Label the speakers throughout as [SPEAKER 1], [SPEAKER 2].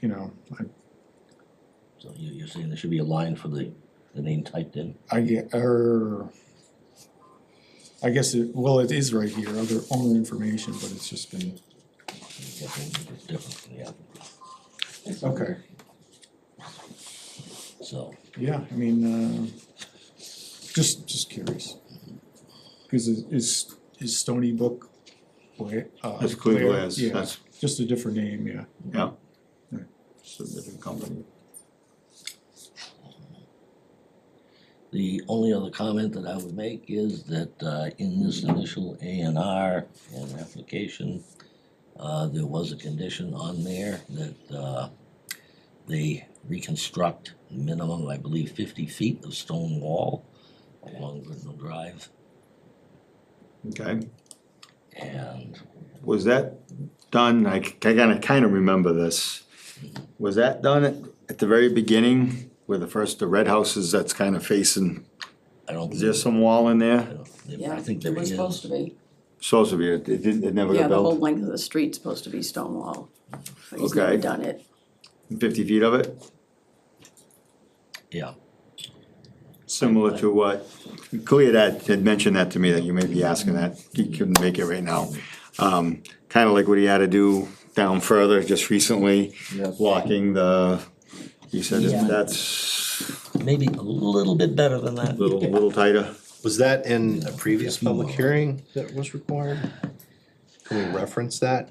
[SPEAKER 1] you know, I,
[SPEAKER 2] So you, you're saying there should be a line for the, the name typed in?
[SPEAKER 1] I get, er. I guess it, well, it is right here, other owner information, but it's just been,
[SPEAKER 2] Definitely, it's different from the applicant.
[SPEAKER 1] okay,
[SPEAKER 2] So,
[SPEAKER 1] yeah, I mean, uh, just, just curious. Cause is- is, is Stony Brook, Bla- uh.
[SPEAKER 3] That's Clear
[SPEAKER 1] Blair?
[SPEAKER 3] Glass,
[SPEAKER 1] Yeah,
[SPEAKER 3] that's-
[SPEAKER 1] Just a different name, yeah.
[SPEAKER 3] yeah.
[SPEAKER 1] Right.
[SPEAKER 3] It's a different company.
[SPEAKER 2] the only other comment that I would make is that, uh, in this initial A and R and application, uh, there was a condition on there that, uh, they reconstruct minimum, I believe, fifty feet of stone wall along Brittenell Drive.
[SPEAKER 3] Okay,
[SPEAKER 2] And
[SPEAKER 3] was that done, I c- I kinda, kinda remember this. Was that done at, at the very beginning, where the first, the red houses that's kinda facing,
[SPEAKER 2] I don't.
[SPEAKER 3] is there some wall in
[SPEAKER 2] I
[SPEAKER 3] there?
[SPEAKER 2] don't-
[SPEAKER 4] Yeah,
[SPEAKER 2] I think
[SPEAKER 4] it
[SPEAKER 2] there
[SPEAKER 4] was
[SPEAKER 2] is.
[SPEAKER 4] supposed to be.
[SPEAKER 3] Supposed to be, it it didn't, it never
[SPEAKER 4] Yeah,
[SPEAKER 3] got
[SPEAKER 4] the whole
[SPEAKER 3] built,
[SPEAKER 4] length of the street's supposed to be stone wall. But he's never
[SPEAKER 3] Okay.
[SPEAKER 4] done it.
[SPEAKER 3] fifty feet of it,
[SPEAKER 2] Yeah,
[SPEAKER 3] similar to what, Clea had, had mentioned that to me, that you may be asking that, he couldn't make it right now. Um, kinda like what he had to do down further just recently, blocking the, he said
[SPEAKER 2] Yeah.
[SPEAKER 3] that's
[SPEAKER 2] maybe a little bit better than that.
[SPEAKER 3] little, little tighter.
[SPEAKER 5] Was that in a previous public hearing that was required? Can we reference that?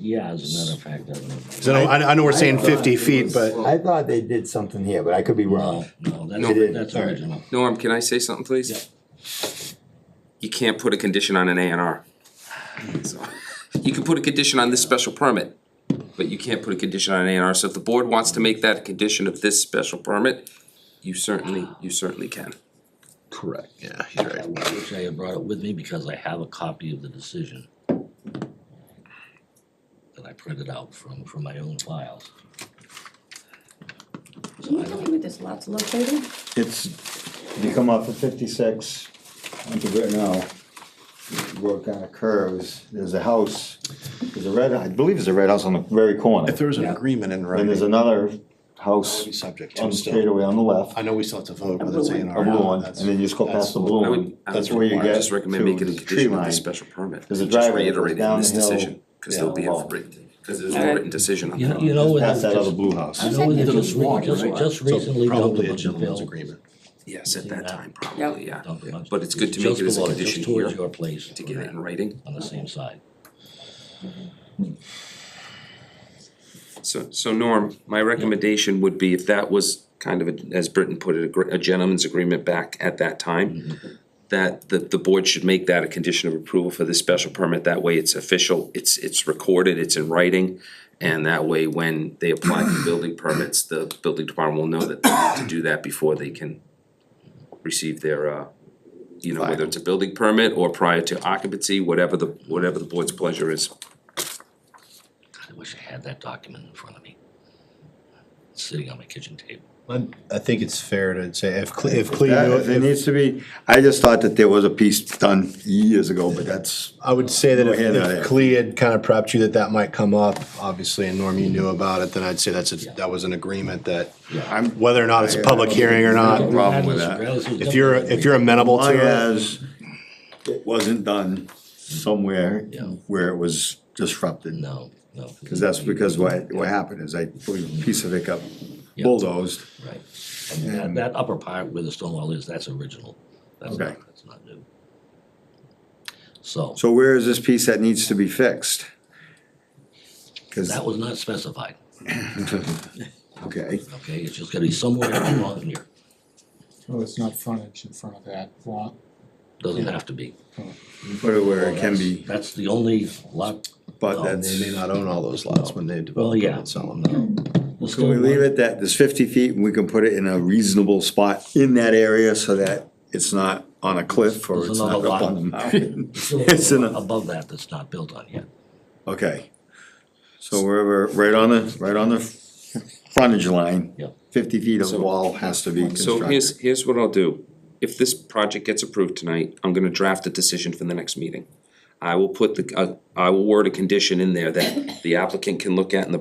[SPEAKER 2] Yeah, as a matter of fact, I don't know.
[SPEAKER 5] 'Cause I know, I know we're saying fifty feet, but
[SPEAKER 6] I thought they did something here, but I could be wrong.
[SPEAKER 2] No, no,
[SPEAKER 6] They
[SPEAKER 2] that's,
[SPEAKER 6] did.
[SPEAKER 2] that's
[SPEAKER 5] All right.
[SPEAKER 2] original.
[SPEAKER 7] Norm, can I say something, please?
[SPEAKER 2] Yeah.
[SPEAKER 7] You can't put a condition on an A and R. So, You can put a condition on this special permit, but you can't put a condition on an A and R, so if the board wants to make that a condition of this special permit, you certainly, you certainly can.
[SPEAKER 5] correct, yeah, he's
[SPEAKER 2] I
[SPEAKER 5] right.
[SPEAKER 2] wish I had brought it with me because I have a copy of the decision that I printed out from, from my own files.
[SPEAKER 4] Can you tell me where this lot's located?
[SPEAKER 3] It's, you come off of fifty-six, onto Brittenell, the road kinda curves, there's a house, there's a red, I believe there's a red house on the very corner.
[SPEAKER 5] If there was an agreement in
[SPEAKER 3] And there's
[SPEAKER 5] writing,
[SPEAKER 3] another
[SPEAKER 5] it'd
[SPEAKER 3] house
[SPEAKER 5] be subject
[SPEAKER 3] on
[SPEAKER 5] to
[SPEAKER 3] the
[SPEAKER 5] still.
[SPEAKER 3] straightaway on the left,
[SPEAKER 5] I
[SPEAKER 3] a
[SPEAKER 5] know we still have to vote whether it's A and R.
[SPEAKER 3] blue
[SPEAKER 5] or
[SPEAKER 3] one,
[SPEAKER 5] not.
[SPEAKER 3] and then you just go past the blue
[SPEAKER 7] I would,
[SPEAKER 3] one.
[SPEAKER 7] I
[SPEAKER 3] That's
[SPEAKER 7] would-
[SPEAKER 3] where you
[SPEAKER 7] I would
[SPEAKER 3] get
[SPEAKER 7] just recommend
[SPEAKER 3] to
[SPEAKER 7] making a
[SPEAKER 3] the tree
[SPEAKER 7] condition of
[SPEAKER 3] line.
[SPEAKER 7] this special permit.
[SPEAKER 3] There's a
[SPEAKER 7] Just
[SPEAKER 3] driveway that goes
[SPEAKER 7] reiterating
[SPEAKER 3] down
[SPEAKER 7] this
[SPEAKER 3] the hill.
[SPEAKER 7] decision, Cause there'll be a,
[SPEAKER 3] Yeah.
[SPEAKER 7] written- cause there's no
[SPEAKER 4] Alright.
[SPEAKER 7] written decision on
[SPEAKER 2] You know,
[SPEAKER 7] that.
[SPEAKER 2] you know, when I
[SPEAKER 3] Past that other
[SPEAKER 2] just,
[SPEAKER 3] blue house.
[SPEAKER 2] I know when
[SPEAKER 4] It's
[SPEAKER 2] just, re- just, just recently doubled
[SPEAKER 5] So probably a
[SPEAKER 2] up the
[SPEAKER 5] gentleman's
[SPEAKER 2] bill.
[SPEAKER 5] agreement.
[SPEAKER 7] Yes, at that
[SPEAKER 4] Yep.
[SPEAKER 7] time, probably, yeah.
[SPEAKER 2] dumped a bunch-
[SPEAKER 7] But it's good to make
[SPEAKER 2] just
[SPEAKER 7] it as a
[SPEAKER 2] below
[SPEAKER 7] condition
[SPEAKER 2] Just towards
[SPEAKER 7] here
[SPEAKER 2] your place.
[SPEAKER 7] To get it in writing.
[SPEAKER 2] On the same side.
[SPEAKER 7] So, so Norm, my recommendation would be if that was kind of, a- as Britton put it, a gr- a gentleman's agreement back at that time, that, that the board should make that a condition of approval for this special permit, that way it's official, it's, it's recorded, it's in writing. And that way, when they apply for building permits, the building department will know that they need to do that before they can receive their, uh, you know, whether it's a building permit or prior to occupancy, whatever the, whatever the board's pleasure is.
[SPEAKER 2] I wish I had that document in front of me. It's Sitting on my kitchen table.
[SPEAKER 5] I, I think it's fair to say if Cle, if Clea
[SPEAKER 3] That-
[SPEAKER 5] knew
[SPEAKER 3] There
[SPEAKER 5] it, if-
[SPEAKER 3] needs to be, I just thought that there was a piece done years ago, but that's,
[SPEAKER 5] I would say that if,
[SPEAKER 3] Go ahead,
[SPEAKER 5] if
[SPEAKER 3] yeah.
[SPEAKER 5] Clea had kind of prepped you that that might come up, obviously, and Norm, you knew about it, then I'd say that's a, that was an agreement that
[SPEAKER 3] I'm,
[SPEAKER 5] whether or not it's a public hearing or not,
[SPEAKER 3] problem with that.
[SPEAKER 5] if you're, if you're amenable
[SPEAKER 3] long
[SPEAKER 2] uh,
[SPEAKER 5] to it,
[SPEAKER 3] as it wasn't done somewhere
[SPEAKER 2] Yeah.
[SPEAKER 3] where it was disrupted.
[SPEAKER 2] No, no.
[SPEAKER 3] Cause that's because what, what happened is I put a piece of it got bulldozed.
[SPEAKER 2] Right, and that, that upper part where the stone wall is, that's original, that's not,
[SPEAKER 3] Okay.
[SPEAKER 2] that's not new. So,
[SPEAKER 3] So where is this piece that needs to be fixed? Cause,
[SPEAKER 2] that was not specified,
[SPEAKER 3] okay,
[SPEAKER 2] okay, it's just gonna be somewhere along here,
[SPEAKER 1] Well, it's not frontage in front of that lot.
[SPEAKER 2] doesn't have to be.
[SPEAKER 3] put it where it can be,
[SPEAKER 2] That's the only lot,
[SPEAKER 3] but
[SPEAKER 2] No,
[SPEAKER 5] they
[SPEAKER 3] that's,
[SPEAKER 5] may not own all those lots when they
[SPEAKER 2] well,
[SPEAKER 5] develop
[SPEAKER 2] yeah,
[SPEAKER 5] and sell them.
[SPEAKER 2] no. The
[SPEAKER 3] can we
[SPEAKER 2] stone
[SPEAKER 3] leave
[SPEAKER 2] one-
[SPEAKER 3] it that there's fifty feet and we can put it in a reasonable spot in that area so that it's not on a cliff or
[SPEAKER 2] There's
[SPEAKER 3] it's
[SPEAKER 2] another
[SPEAKER 3] not up
[SPEAKER 2] lot.
[SPEAKER 3] on the mountain? It's in a,
[SPEAKER 2] Above that, that's not built on yet,
[SPEAKER 3] okay. So wherever, right on the, right on the frontage line.
[SPEAKER 2] Yep.
[SPEAKER 3] Fifty feet of wall has to be
[SPEAKER 7] So here's,
[SPEAKER 3] constructed.
[SPEAKER 7] here's what I'll do. If this project gets approved tonight, I'm gonna draft a decision for the next meeting. I will put the, uh, I will word a condition in there that the applicant can look at and the